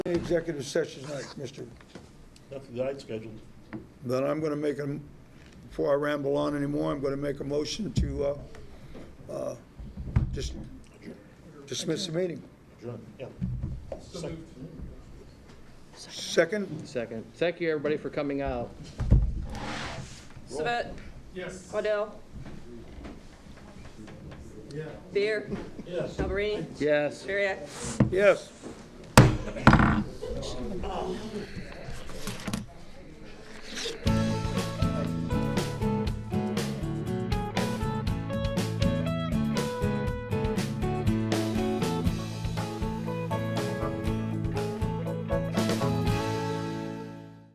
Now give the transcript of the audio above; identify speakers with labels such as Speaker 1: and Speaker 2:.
Speaker 1: Any executive sessions tonight, Mr.?
Speaker 2: Nothing that I'd scheduled.
Speaker 1: Then I'm going to make, a before I ramble on anymore, I'm going to make a motion to uh, uh, just dismiss the meeting.
Speaker 2: Adjourned, yeah. Second.
Speaker 1: Second?
Speaker 3: Second. Thank you, everybody, for coming out.
Speaker 4: Savet? Yes. Waddell? Beer?
Speaker 2: Yes.
Speaker 4: Alberini?
Speaker 3: Yes.
Speaker 4: Terriac?
Speaker 1: Yes.